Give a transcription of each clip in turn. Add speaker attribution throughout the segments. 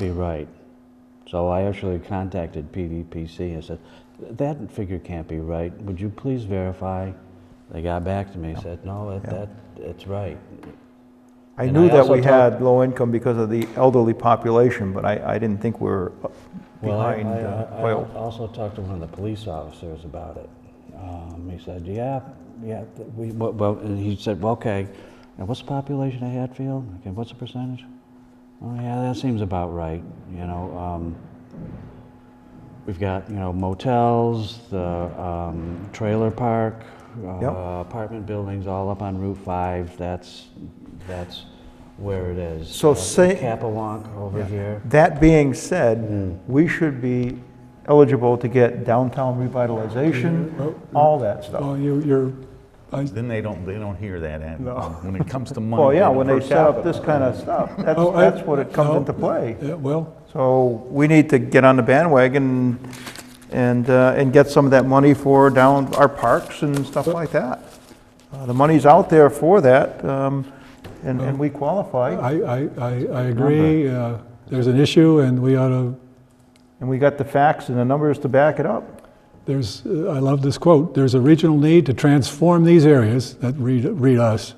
Speaker 1: You're right. So I actually contacted PVPC and said, that figure can't be right. Would you please verify? They got back to me and said, no, that,
Speaker 2: Yeah.
Speaker 1: that, it's right.
Speaker 2: I
Speaker 1: And
Speaker 2: knew
Speaker 1: I
Speaker 2: that
Speaker 1: also
Speaker 2: we
Speaker 1: talked-
Speaker 2: had low income because of the elderly population, but I, I didn't think we were uh,
Speaker 1: Well, I-
Speaker 2: behind
Speaker 1: I-
Speaker 2: uh,
Speaker 1: I-
Speaker 2: oil.
Speaker 1: I also talked to one of the police officers about it. Um, He said, yeah, yeah, th- we, well- well, and he said, well, okay, and what's the population of Hatfield? Okay, what's the percentage? Oh, yeah, that seems about right, you know, um, we've got, you know, motels, the, um, trailer park,
Speaker 2: Yep.
Speaker 1: uh, apartment buildings all up on Route Five, that's, that's where it is.
Speaker 2: So
Speaker 1: Uh,
Speaker 2: say-
Speaker 1: Capewalk over here.
Speaker 2: That being
Speaker 1: Hmm.
Speaker 2: said, we should be eligible to get downtown revitalization, all that stuff.
Speaker 3: Well, you- you're, I-
Speaker 4: Then they don't, they don't hear that. and
Speaker 2: No.
Speaker 4: When it comes to money.
Speaker 2: Well, yeah,
Speaker 4: don't
Speaker 2: when they
Speaker 4: first
Speaker 2: set up
Speaker 4: have it.
Speaker 2: this kind of stuff, that's,
Speaker 3: oh, I-
Speaker 2: that's what it comes
Speaker 3: no,
Speaker 2: into play.
Speaker 3: Yeah, well,
Speaker 2: So we need to get on the bandwagon and, uh, and get some of that money for down our parks and stuff like that. Uh, The money's out there for that, um, and, and we qualify.
Speaker 3: I, I, I, I agree, uh, there's an issue and we ought to,
Speaker 2: And we got the facts and the numbers to back it up.
Speaker 3: there's, uh, I love this quote, there's a regional need to transform these areas, that read, read us,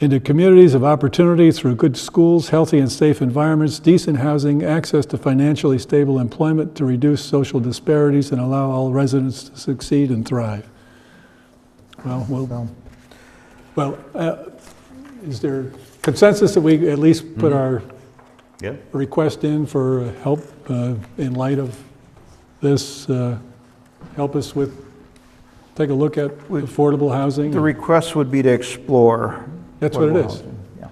Speaker 3: into communities of opportunity through good schools, healthy and safe environments, decent housing, access to financially stable employment to reduce social disparities and allow all residents to succeed and thrive. Well, we'll, well, uh, is there consensus that we at least put our
Speaker 4: Yeah,
Speaker 3: request in for help uh, in light of this, uh, help us with, take a look at
Speaker 2: With-
Speaker 3: affordable housing?
Speaker 2: The request would be to explore.
Speaker 3: That's what it
Speaker 2: affordable
Speaker 3: is.
Speaker 2: housing. Yeah.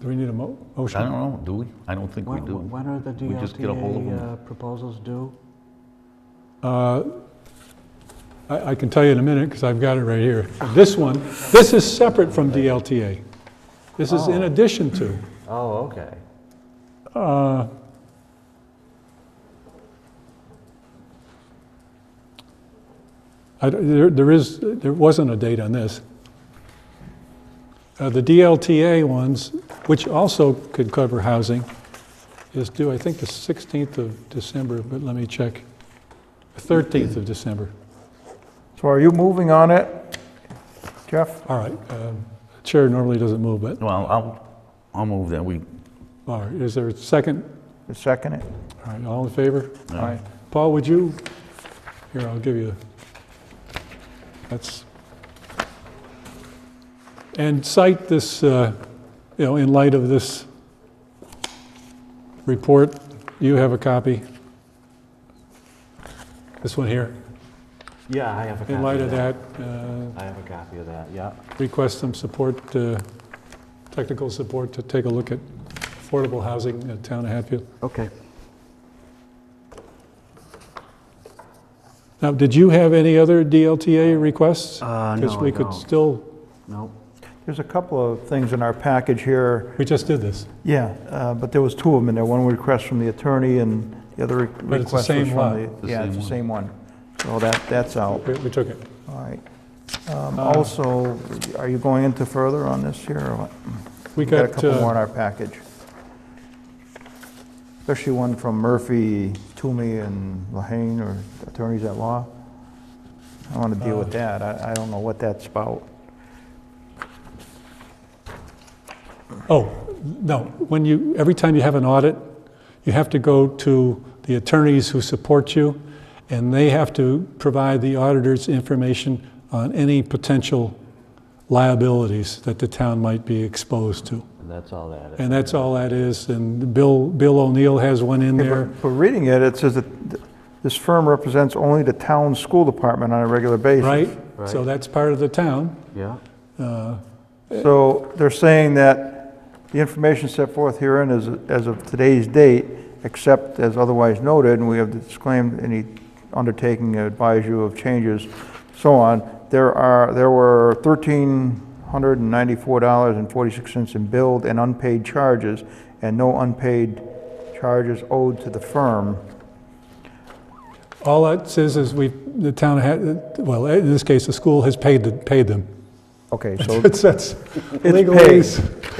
Speaker 3: Do we need a mo-
Speaker 4: I don't
Speaker 3: motion?
Speaker 4: know, do we? I don't think we
Speaker 1: When,
Speaker 4: do.
Speaker 1: when are the
Speaker 4: We just get a hold of
Speaker 1: DLTA
Speaker 4: 'em.
Speaker 1: uh, proposals due?
Speaker 3: Uh, I I can tell you in a minute, because I've got it right here. This one, this is separate from DLTA. This is in addition to.
Speaker 1: Oh, okay.
Speaker 3: Uh, I don't- There there is, there wasn't a date on this. Uh, The DLTA ones, which also could cover housing, is due, I think, the 16th of December, but let me check. 13th of December.
Speaker 2: So are you moving on it, Jeff?
Speaker 3: All right. um, Chair normally doesn't move, but,
Speaker 4: Well, I'll, I'll move that. We,
Speaker 3: all right, is there a second?
Speaker 2: The second it?
Speaker 3: All right, all in favor?
Speaker 4: Yeah.
Speaker 2: Aye.
Speaker 3: Paul, would you, here, I'll give you, that's, and cite this, uh, you know, in light of this report, you have a copy. This one here,
Speaker 1: Yeah, I have a copy.
Speaker 3: in light of that, uh,
Speaker 1: I have a copy of that, yeah.
Speaker 3: request some support, uh, technical support to take a look at affordable housing in the town of Hatfield.
Speaker 1: Okay.
Speaker 3: Now, did you have any other DLTA requests?
Speaker 1: Uh,
Speaker 3: Because
Speaker 1: no,
Speaker 3: we
Speaker 1: I
Speaker 3: could
Speaker 1: don't.
Speaker 3: still,
Speaker 1: No.
Speaker 2: There's a couple of things in our package here.
Speaker 3: we just did this,
Speaker 2: Yeah, uh, but there was two of them in there, one request from the attorney and the other re-
Speaker 3: But it's the
Speaker 2: request was
Speaker 3: same
Speaker 2: from
Speaker 3: lot.
Speaker 2: the...
Speaker 4: The
Speaker 2: Yeah, it's
Speaker 4: same
Speaker 2: the
Speaker 4: one.
Speaker 2: same one. So that, that's out,
Speaker 3: we we took it.
Speaker 2: all right. Um,
Speaker 3: Uh,
Speaker 2: Also, are you going into further on this here or what?
Speaker 3: We
Speaker 2: We've got a
Speaker 3: got,
Speaker 2: couple more in
Speaker 3: uh,
Speaker 2: our package. Especially one from Murphy, Toomey, and Lahane, or attorneys at law. I want to deal
Speaker 3: Uh,
Speaker 2: with that, I I don't know what that's about.
Speaker 3: oh, no, when you, every time you have an audit, you have to go to the attorneys who support you, and they have to provide the auditors information on any potential liabilities that the town might be exposed to.
Speaker 1: And that's all that is.
Speaker 3: And that's all that is, and Bill, Bill O'Neill has one in
Speaker 2: Yeah,
Speaker 3: there.
Speaker 2: But but reading it, it says that th- this firm represents only the town school department on a regular basis.
Speaker 3: right?
Speaker 1: Right.
Speaker 3: So that's part of the town.
Speaker 1: Yeah,
Speaker 2: So they're saying that the information set forth herein is as of today's date, except as otherwise noted, and we have disclaimed any undertaking to advise you of changes, so on. There are, there were thirteen hundred and ninety-four dollars and forty-six cents in billed and unpaid charges, and no unpaid charges owed to the firm.
Speaker 3: All that says is we, the town had, well, in this case, the school has paid, paid them.
Speaker 2: Okay, so
Speaker 3: It says
Speaker 2: paid.
Speaker 3: legalese.